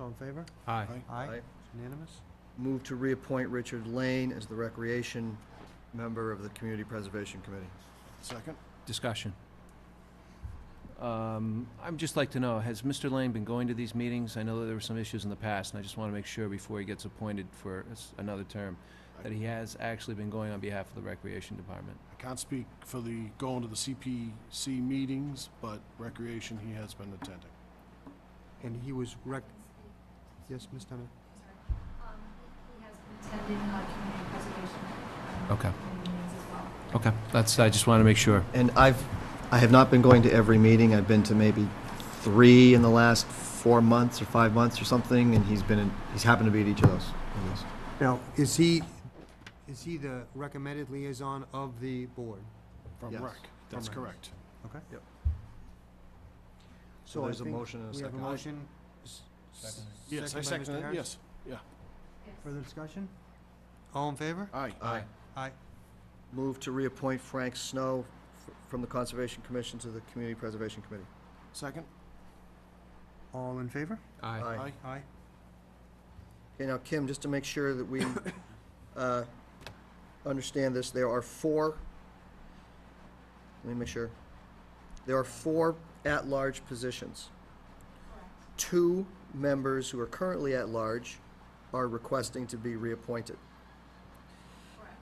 All in favor? Aye. Aye. It's Unanimous? Move to reappoint Richard Lane as the Recreation Member of the Community Preservation Committee. Second. Discussion. Um, I'd just like to know, has Mr. Lane been going to these meetings? I know that there were some issues in the past, and I just want to make sure before he gets appointed for s- another term, that he has actually been going on behalf of the Recreation Department. I can't speak for the, going to the CPC meetings, but recreation, he has been attending. And he was rec, yes, Ms. Dunham? Um, He has been attending uh, community preservation um, Okay. meetings as well. Okay, that's, I just want to make sure. And I've, I have not been going to every meeting. I've been to maybe three in the last four months or five months or something, and he's been, in- he's happened to be at each of those. I guess. Now, is he, is he the recommended liaison of the board? From Yes. rec, that's From rec. correct. Okay? Yep. So So I there's a think motion and a we have a second. motion. s- s- Yes, I by Mr. second it, Harris. yes. Yes. Further discussion? All in favor? Aye. Aye. Aye. Move to reappoint Frank Snow f- from the Conservation Commission to the Community Preservation Committee. Second? All in favor? Aye. Aye. Aye. Okay, now, Kim, just to make sure that we uh, understand this, there are four, let me make sure. There are four at-large positions. Two members who are currently at-large are requesting to be reappointed.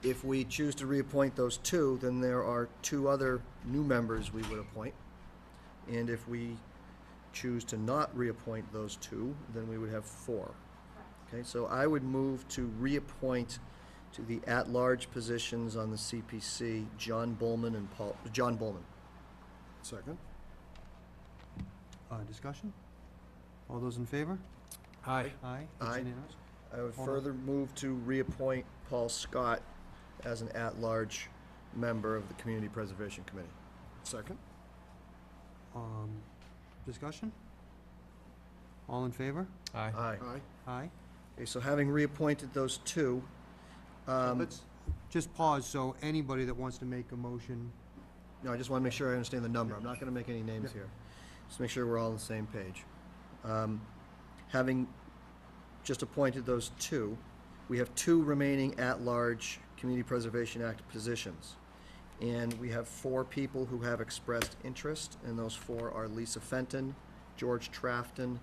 If we choose to reappoint those two, then there are two other new members we would appoint. And if we choose to not reappoint those two, then we would have four. Okay, so I would move to reappoint to the at-large positions on the CPC, John Bullman and Paul, John Bullman. Second? Uh, discussion? All those in favor? Aye. Aye. It's Aye. unanimous. I would Hold on. further move to reappoint Paul Scott as an at-large member of the Community Preservation Committee. Second? Um, discussion? All in favor? Aye. Aye. Aye. Aye. Okay, so having reappointed those two, um, Let's just pause, so anybody that wants to make a motion, no, I just want to make sure I understand the number. I'm not going to make any names here. Just make sure we're all on the same page. Um, Having just appointed those two, we have two remaining at-large Community Preservation Act positions. And we have four people who have expressed interest, and those four are Lisa Fenton, George Trafton,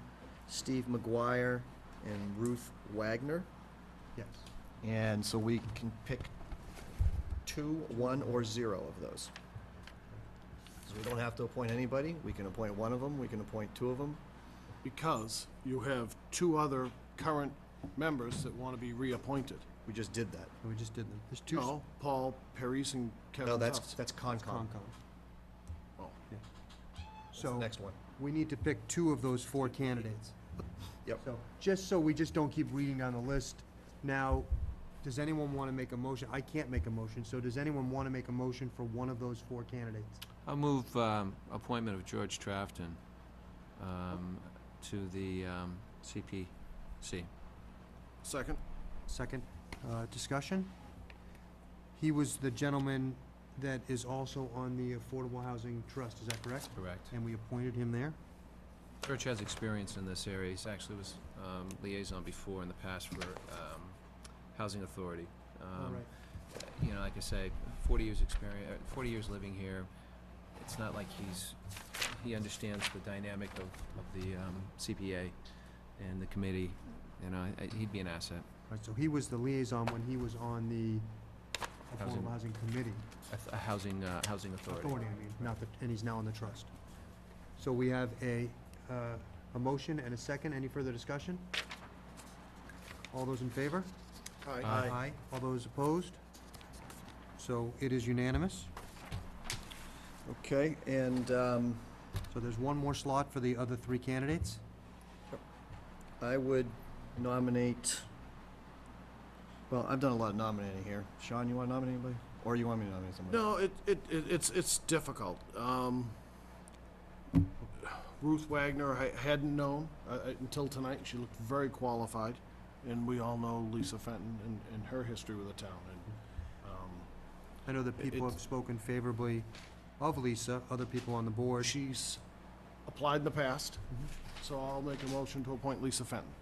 Steve McGuire, and Ruth Wagner. yes. And so we can pick two, one, or zero of those. So we don't have to appoint anybody, we can appoint one of them, we can appoint two of them. Because you have two other current members that want to be reappointed. We just did that. And we just did them. There's two. s- Oh, No, Paul Paris and No, Kevin that's, Tufts. that's Concom. Concom. Oh. Yeah. That's the So, next one. we need to pick two of those four candidates. Yep. So, just so we just don't keep reading down the list, now, does anyone want to make a motion? I can't make a motion, so does anyone want to make a motion for one of those four candidates? I'll move um, appointment of George Trafton um, to the um, CPC. Second? Second, uh, discussion? He was the gentleman that is also on the Affordable Housing Trust, is that correct? Correct. And we appointed him there? Church has experience in this area. He's actually was um, liaison before in the past for um, Housing Authority. All Um, right. You know, like I say, 40 years experience, 40 years living here. It's not like he's, he understands the dynamic of of the um, CPA and the committee. You know, I- I- he'd be an asset. Right, so he was the liaison when he was on the Housing. Affordable Housing Committee, A th- a Housing, uh, Housing authority, I mean, not the, and he's now on the trust. So we have a, uh, a motion and a second, any further discussion? All those in favor? Aye. All those opposed? So it is unanimous, Okay, and um, so there's one more slot for the other three candidates? I would nominate, well, I've done a lot of nominating here. Sean, you want to nominate anybody? Or you want me to nominate somebody? No, it, it, it- it's, it's difficult. Um, Ruth Wagner, I hadn't known uh, uh, until tonight. She looked very qualified. And we all know Lisa Fenton and, and her history with the town. And, um, I know that people It's- have spoken favorably of Lisa, other people on the board. she's applied in the past, so I'll make a motion to appoint Lisa Fenton.